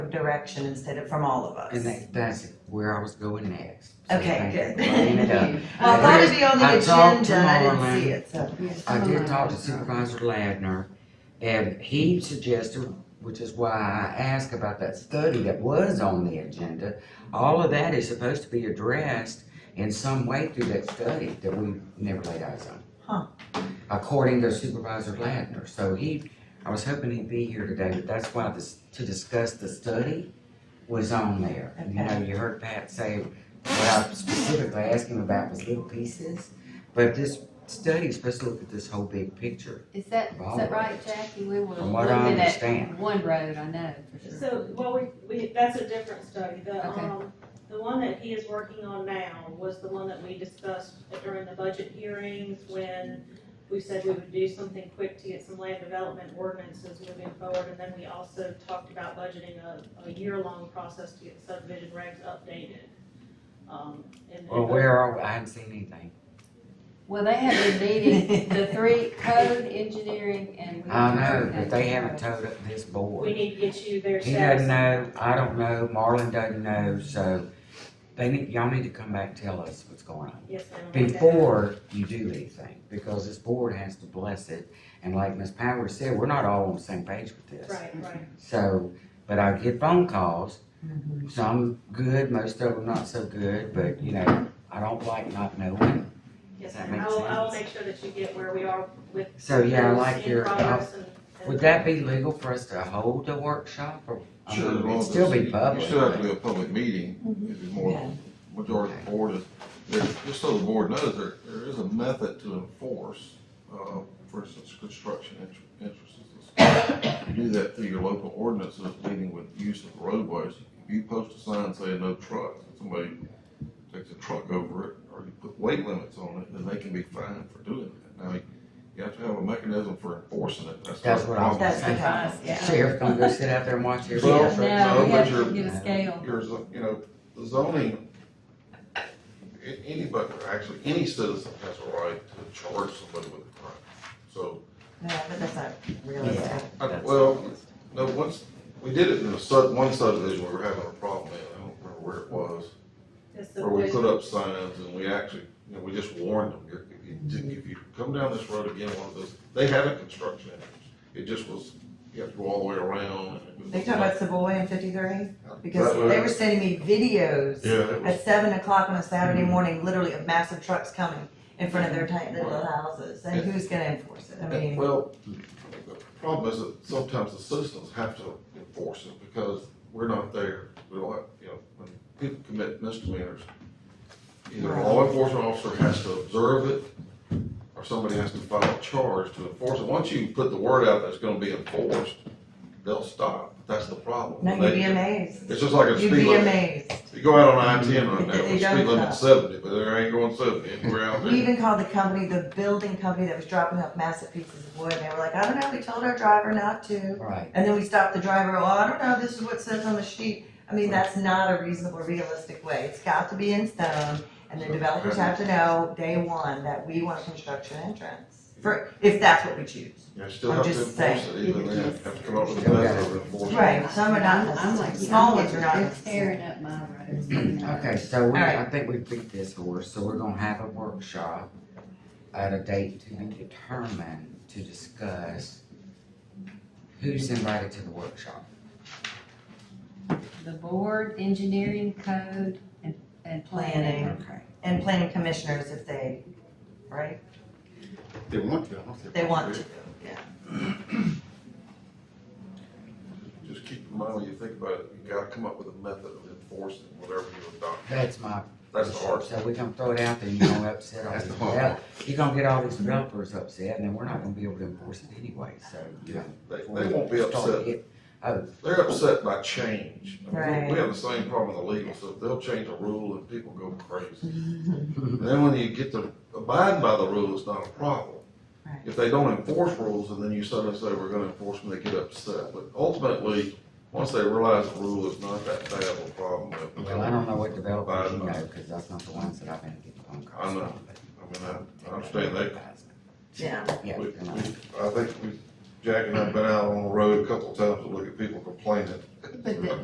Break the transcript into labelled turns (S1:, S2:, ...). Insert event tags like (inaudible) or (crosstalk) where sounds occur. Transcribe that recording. S1: direction instead of from all of
S2: And
S1: us.
S2: that, that's where I was going next. So
S1: Okay,
S2: thank you
S1: good.
S2: for bringing
S1: (laughs)
S2: it up.
S1: Well, I thought it'd be on the
S2: I talked
S1: agenda, I didn't
S2: tomorrow,
S1: see it, so,
S2: I did talk to Supervisor Ladner, and he suggested, which is why I asked about that study that was on the agenda. All of that is supposed to be addressed in some way through that study that we never laid eyes on.
S1: Huh.
S2: According to Supervisor Ladner, so he, I was hoping he'd be here today, but that's why this, to discuss the study was on there. And, You know, you heard Pat say, what I specifically asked him about was little pieces, but this study is supposed to look at this whole big picture,
S3: Is that, is that right, Jackie? We were
S2: from what I
S3: looking at
S2: understand.
S3: one road, I know for sure.
S4: So, well, we, we, that's a different study. The,
S3: Okay.
S4: um, the one that he is working on now was the one that we discussed during the budget hearings when we said we would do something quick to get some land development ordinances moving forward. And then we also talked about budgeting a, a year-long process to get subdivision regs updated. Um, and-
S2: Well, where are, we? I haven't seen anything.
S3: Well, they have been meeting, the three, code, engineering, and. we-
S2: I know, but they haven't told up this
S4: We
S2: board.
S4: need to get you their
S2: He doesn't
S4: status.
S2: know, I don't know, Marlon doesn't know, so they need, y'all need to come back, and tell us what's going on.
S4: Yes, ma'am. Okay.
S2: Before you do anything, because this board has to bless it, and like Ms. Powers said, we're not all on the same page with this.
S4: Right, right.
S2: So, but I get phone calls, some good, most of them not so good, but you know, I don't like not knowing.
S4: Yes,
S2: That
S4: ma'am. I
S2: makes
S4: will, I will
S2: sense.
S4: make sure that you get where we are with.
S2: So, yeah, I
S4: those
S2: like
S4: in
S2: your-
S4: progress and- and-
S2: Would that be legal for us to hold a workshop or? I mean,
S5: Sure, as long
S2: It'd
S5: as
S2: still be
S5: it's-
S2: public.
S5: You still have to
S2: but-
S5: be a public meeting, if it's more, majority of the board is, there's, just so the board knows, there, there is a method to enforce, uh, for instance, construction inter- interests. You do that through your local ordinances, meaning with use of roadways, if you post a sign saying no trucks, and somebody takes a truck over it, or you put weight limits on it, then they can be fined for doing that. Now, you have to have a mechanism for enforcing it, that's.
S2: That's what I was
S1: that's the
S2: Okay.
S1: price, yeah.
S2: Sheriff gonna go sit out there and watch everybody.
S5: Well,
S3: No,
S5: No,
S3: we
S5: but
S3: have to
S5: you're-
S3: get a scale.
S5: your, zo- you know, the zoning, a- anybody, actually, any citizen has a right to charge somebody with a crime. So,
S1: No, but that's not realistic.
S5: I- well, no, once, we did it in a sub, one subdivision, we were having a problem in, I don't remember where it was,
S4: Just the
S5: where we
S4: way-
S5: put up signs and we actually, you know, we just warned them, "You're- if you, do- if you come down this road again, one of those, they had a construction entrance. It just was, you have to go all the way around. and it was-
S1: They talk about Savoy and fifty-three, because
S5: That was-
S1: they were sending me videos
S5: Yeah, it was,
S1: at seven o'clock on a Saturday
S2: Mm-hmm.
S1: morning, literally of massive trucks coming in front of their tiny little houses, and who's gonna enforce it? I
S5: Yeah,
S1: mean,
S5: Well, the problem is that sometimes the citizens have to enforce it because we're not there. We don't have, you know, when people commit misdemeanors, either a law enforcement officer has to observe it or somebody has to file a charge to enforce it. Once you put the word out that it's gonna be enforced, they'll stop. That's the problem.
S1: no, you'd be
S5: They-
S1: amazed,
S5: It's just like a
S1: you'd
S5: speed
S1: be
S5: limit.
S1: amazed.
S5: You go out on I ten right now,
S1: They
S5: the
S1: don't
S5: speed limit's
S1: stop.
S5: seventy, but there ain't going seventy anywhere out
S1: We
S5: there.
S1: even called the company, the building company that was dropping off massive pieces of wood, and they were like, I don't know, we told our driver not to.
S2: Right,
S1: And then we stopped the driver, oh, I don't know, this is what it says on the sheet. I mean, that's not a reasonable, realistic way. It's got to be in stone, and the developers have to know, day one, that we want a construction entrance. For, if that's what we choose.
S5: You still
S1: I'm
S5: have to
S1: just
S5: enforce
S1: saying,
S5: it, even
S1: it
S5: then,
S1: is-
S5: have to come up with a
S2: Okay.
S5: method of enforcement.
S1: Right, some are not,
S3: I'm like, you know,
S1: small ones are
S3: They're
S1: not.
S3: tearing up my roads. you know.
S2: (clears throat) okay, so we,
S1: All
S2: I
S1: right.
S2: think we beat this horse, so we're gonna have a workshop at a date to be determined to discuss who's invited to the workshop.
S3: The board, engineering, code, and, and planning.
S1: Planning,
S2: Okay.
S1: and planning commissioners if they, right,
S5: They want to, I don't think.
S1: they want to.
S5: Just keep in mind when you think about it, you gotta come up with a method of enforcing whatever you adopt.
S2: That's my
S5: That's the hard.
S2: So we're gonna throw it out there and you're gonna upset all
S5: That's
S2: these
S5: the hard part.
S2: developers. You're gonna get all these developers upset and then we're not gonna be able to enforce it anyway, so.
S5: Yeah, They, they won't be
S2: Start
S5: upset.
S2: it. Oh,
S5: They're upset by change. I mean, we-
S1: Right.
S5: We have the same problem in the legal stuff. They'll change a rule and people go crazy.
S1: Mm-hmm.
S5: Then when you get to abide by the rule, it's not a problem.
S1: Right.
S5: If they don't enforce rules and then you suddenly say we're gonna enforce them, they get upset. But ultimately, once they realize the rule is not that bad of a problem, they'll-
S2: well, I don't know what developers you know, cause that's not the ones that I've been getting phone calls
S5: I know.
S2: from.
S5: I mean, I, I understand that.
S1: (laughs) Yeah,
S2: Yeah,
S5: We-
S2: you know.
S5: we- I think we, Jack and I've been out on the road a couple of times to look at people complaining.
S3: But the-